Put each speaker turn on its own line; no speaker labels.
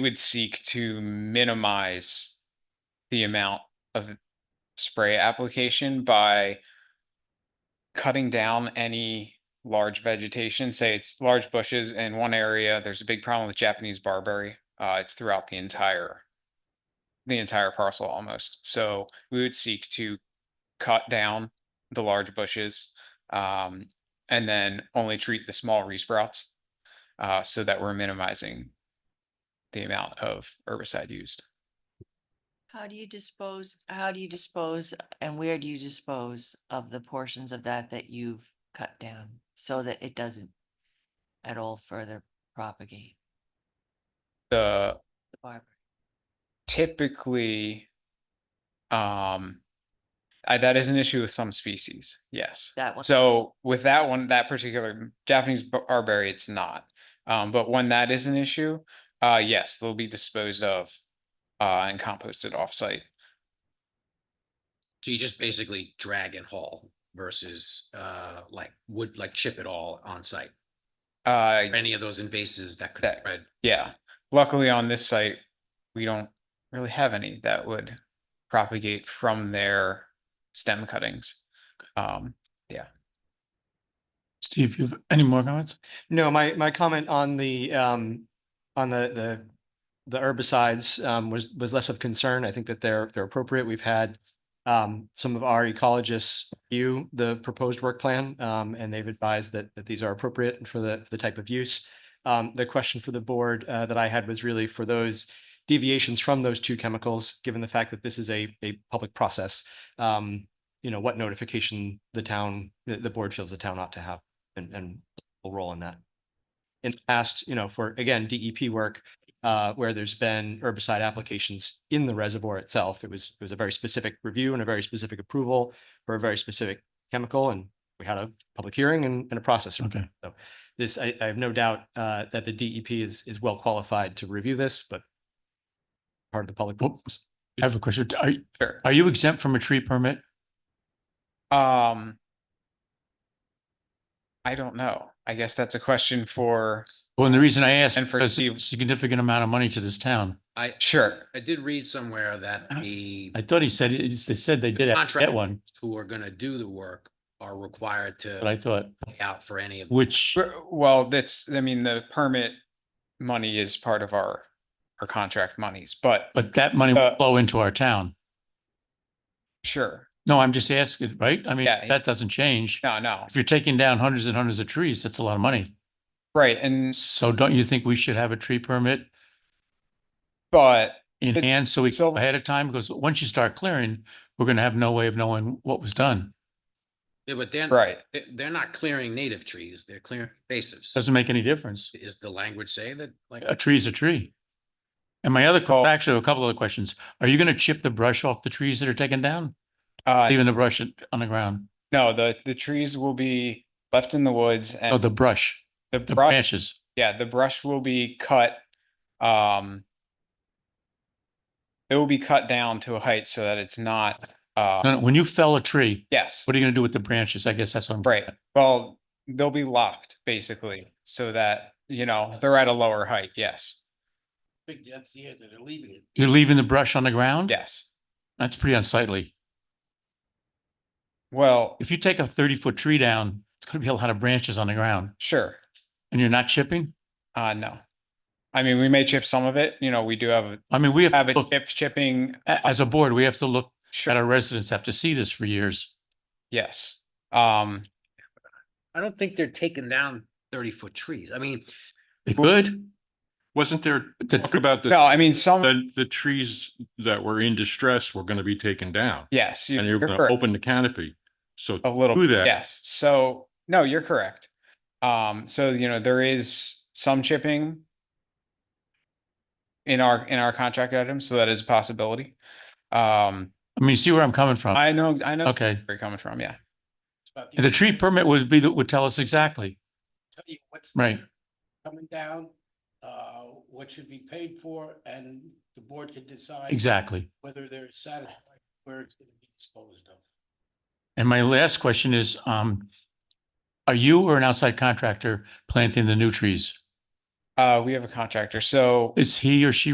would seek to minimize the amount of spray application by cutting down any large vegetation, say it's large bushes in one area, there's a big problem with Japanese barberry. Uh, it's throughout the entire the entire parcel almost. So we would seek to cut down the large bushes um, and then only treat the small resprouts uh, so that we're minimizing the amount of herbicide used.
How do you dispose, how do you dispose and where do you dispose of the portions of that that you've cut down so that it doesn't at all further propagate
The
the barb?
typically, um, I, that is an issue with some species. Yes.
That one,
So with that one, that particular Japanese bar- barberry, it's not. Um, but when that is an issue, uh, yes, they'll be disposed of uh, and composted offsite.
So you just basically drag and haul versus uh like would like chip it all on site.
Uh,
Any of those invasives that could
That-
spread.
yeah, luckily on this site, we don't really have any that would propagate from their stem cuttings. Um,
Steve, you have any more comments?
No, my, my comment on the, um, on the, the, the herbicides, um, was, was less of concern. I think that they're, they're appropriate. We've had, um, some of our ecologists view the proposed work plan, um, and they've advised that, that these are appropriate for the, for the type of use. Um, the question for the board, uh, that I had was really for those deviations from those two chemicals, given the fact that this is a, a public process. Um, you know, what notification the town, the, the board feels the town ought to have and, and a role in that. In the past, you know, for again, DEP work, uh, where there's been herbicide applications in the reservoir itself, it was, it was a very specific review and a very specific approval for a very specific chemical and we had a public hearing and, and a process.
Okay.
This, I, I have no doubt, uh, that the DEP is, is well qualified to review this, but part of the public.
Well,
process.
I have a question. Are,
sure.
are you exempt from a tree permit?
Um, I don't know. I guess that's a question for,
Well, and the reason I ask,
And for
because
Steve-
it's a significant amount of money to this town.
I
sure.
I did read somewhere that the
Uh-huh. I thought he said, it- they said they did actually get
Contract.
one,
who are gonna do the work are required
but I
to
thought,
pay out for any of.
which,
Sure, Well, that's, I mean, the permit money is part of our, our contract monies, but
but that money
Uh,
will flow into our town.
sure.
No, I'm just asking, right? I mean,
Yeah.
that doesn't change.
No, no.
If you're taking down hundreds and hundreds of trees, that's a lot of money.
Right. And,
So don't you think we should have a tree permit
but
in
It's-
hand so we
so-
ahead of time? Because once you start clearing, we're going to have no way of knowing what was done.
Yeah, But they're
Right.
they- they're not clearing native trees, they're clearing invasives.
Doesn't make any difference.
Is the language say that like?
a tree's a tree. And my other,
Well-
que- actually, a couple other questions. Are you gonna chip the brush off the trees that are taken down?
Uh,
Leaving the brush in- on the ground?
no, the, the trees will be left in the woods
Oh,
and
the brush,
the
the
brush,
branches.
yeah, the brush will be cut. Um, it will be cut down to a height so that it's not,
No,
uh,
no, When you fell a tree,
yes.
what are you gonna do with the branches? I guess that's what I'm.
Right. Well, they'll be lopped basically so that, you know, they're at a lower height. Yes.
think that's the answer, they're leaving it.
You're leaving the brush on the
Mm-hmm.
ground?
Yes.
That's pretty unsightly.
Well,
If you take a thirty foot tree down, it's gonna be a lot of branches on the ground
sure.
and you're not chipping?
Uh, no. I mean, we may chip some of it, you know, we do have,
I mean, we have,
have
to
it
Oh.
look-
chip chipping.
a- as a board, we have to look at
Sure.
our residents, have to see this for years.
Yes. Um,
I don't think they're taking down thirty foot trees. I mean,
They could.
Wasn't there
but the-
talk about
no,
the,
I mean, some,
the, the trees that were in distress were gonna be taken down?
yes. you-
And you're
you're
gonna
correct.
open the canopy, so.
A little,
do
bit,
that.
yes. So, no, you're correct. Um, so, you know, there is some chipping in our, in our contract items, so that is a possibility. Um,
I mean, you see where I'm coming from?
I know, I know
Okay.
where you're coming from, yeah.
And the tree permit would be, would tell us exactly,
tell you what's
right?
coming down, uh, what should be paid for, and the board can decide.
Exactly.
Whether they're satisfied, where it's gonna be disposed of.
And my last question is, um, are you or an outside contractor planting the new trees?
Uh, we have a contractor, so.
Is he or she